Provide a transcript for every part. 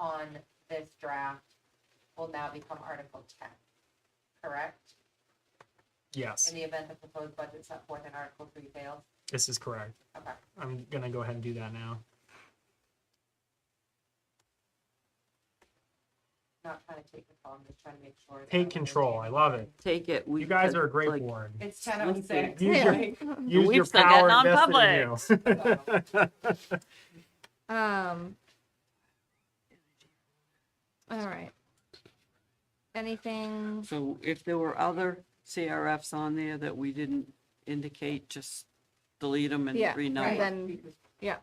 on this draft will now become Article ten, correct? Yes, In the event the proposed budget set forth in Article three fails, this is correct. okay. I'm gonna go ahead and do that now. Not trying to take control, I'm just trying to make sure. that Take I'm control, I love it. Take it. You guys are a great like- board. It's ten oh six. Use your- Use your We've still got power invested in you. Um. All right. Anything? So if there were other CRFs on there that we didn't indicate, just delete them and Yeah, Right, Right. renumber. Then- because That's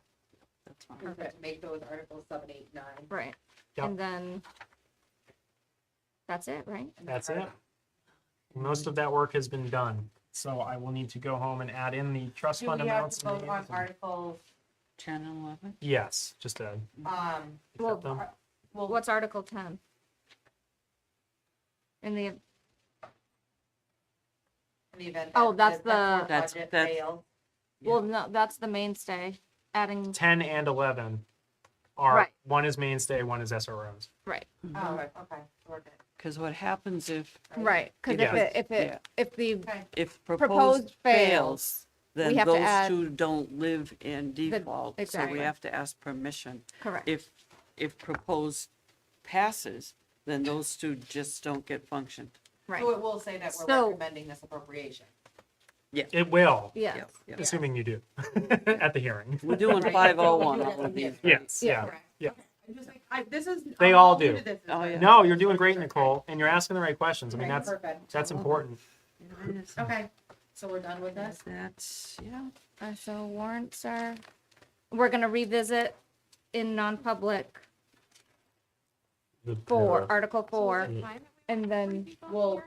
we fine. could Make those Articles seven, eight, nine. Right. Yep. And then. That's it, right? and That's then it. Most of that work has been done, so I will need to go home and add in the trust Do fund we have amounts. to and the vote on anthem. Articles, Ten and eleven? Yes, just to um, Well, accept them. ar- Well, what's Article ten? In the, in the event? Oh, that that's set the- forth That's- budget that's- fails? Yeah. well, no, that's the mainstay, adding, Ten and eleven are, Right. one is mainstay, one is SROs. right, mm-hmm. Oh, right, okay, we're good. Because Uh, what happens if, right, cause if Yeah. it, if Yeah. it, if the, Okay, if Proposed proposed fails, fails, then have to those add- two don't live in default. So we exactly. have to ask permission. correct, If, if proposed passes, then those two just don't get functioned. right, so it will say that we're So- recommending this appropriation. It will, yeah, Yep, yep. assuming you do, at the hearing. We're doing Right. five oh one, Yeah. all of these. right? Yes, Yeah. yeah. Yeah. I'm just like, I, this is. They I'm all new do. to this, is Oh, what- yeah. No, you're doing great, Nicole, and you're asking the right questions. I mean, Okay, that's, perfect. that's Mm-hmm. important. Okay, so we're done with this? That's, yeah. Uh, so warrants are, we're gonna revisit in non-public for Article four, Mm-hmm. and then, Well,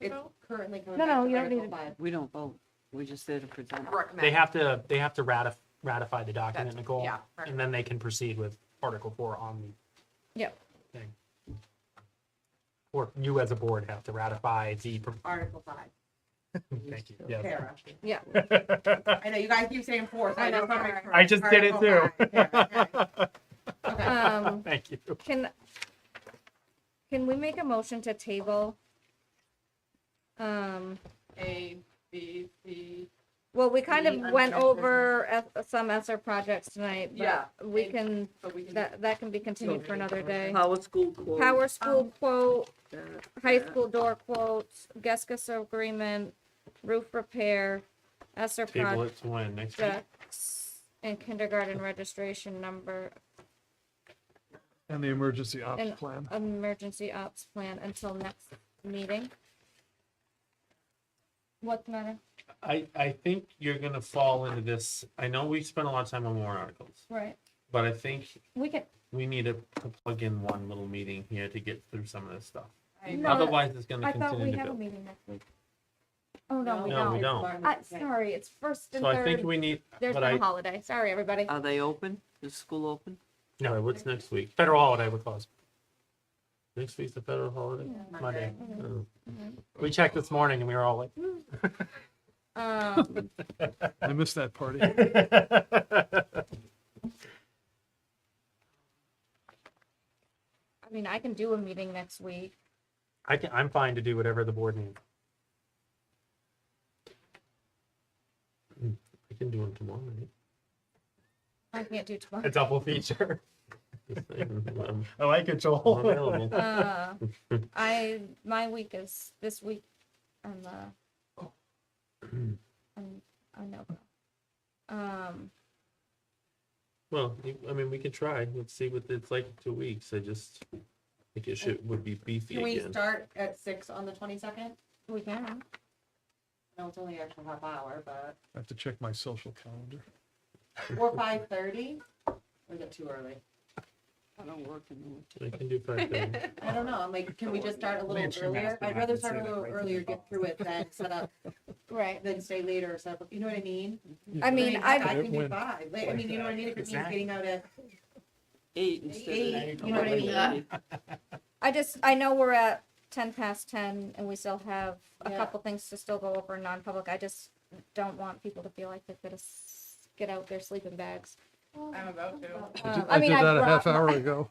it's currently going No, back no, to you don't need Article five. We don't vote. We just did a present. They Recommend. have to, they have to ratif- ratify the document, That's- Nicole, yeah, right. and then they can proceed with Article Four on the yep, thing. Or you as a board have to ratify the, pro- Article five, thank you, yeah. para. yeah, I know, you guys keep saying four, so I I know, just wanna make sorry. sure. I just did it Article too. five, para, okay. Okay. um, Thank you. can, can we make a motion to table? Um, A, B, C. well, we kind The of went unfinished over eth- some ESER projects tonight, Yeah, but we and- can, So we can. that, that can be continued for another day. Power school quote. Power school um, quote, that, high that. school door quotes, Geskus agreement, roof repair, ESER Table it to when, next week? projects, and kindergarten registration number, And the emergency ops And- plan. emergency ops plan until next meeting. What's the matter? I, I think you're gonna fall into this, I know we spent a lot of time on warrant articles, Right, but I think we can, we need to to plug in one little meeting here to get through some of this stuff. I- No, Otherwise, it's I gonna thought we continue to have a build. meeting next week. Oh, no, we No, we don't. don't. I, sorry, it's first and So I think third. we need, There's but been a I, holiday. Sorry, everybody. Uh, Are they open? Is school open? no, what's next week? Federal holiday would close. Next week's the federal holiday? Monday. Oh. Mm-hmm. We checked this morning and we were all like, Um, I missed that party. I mean, I can do a meeting next week. I can, I'm fine to do whatever the board needs. I can do one tomorrow night. I can't do A tomorrow. double feature. Just saying, I'm- I like it, I'm Joel. available. Uh, I, my week is this week on the. Oh. I'm, I know. Um, Well, you- I mean, we could try, let's see what it's like in two weeks, I just think it should, would be beefy Can we again. start at six on the twenty-second? we can, No, it's only actually half hour, but, I have to check my social calendar. or five thirty? Or is it too early? I don't work in the winter. I can do five thirty. I don't know, I'm like, can we just start a little Lance, you earlier? asked me, I'd I rather can start say a that little right earlier, now. get through it, then set up, right. then stay later, or set up, you know what I mean? I mean, Like, I, I can do When- five, like, I mean, you know what I mean, if it means Exactly. getting out at, Eight instead of. Eight, you know what I mean? Yeah. I just, I know we're at ten past ten and we still have a Yeah. couple things to still go over in non-public. I just don't want people to feel like they're gonna s- get out their sleeping bags. I'm about to. I did- Um, I did mean, that a brought half my- hour ago.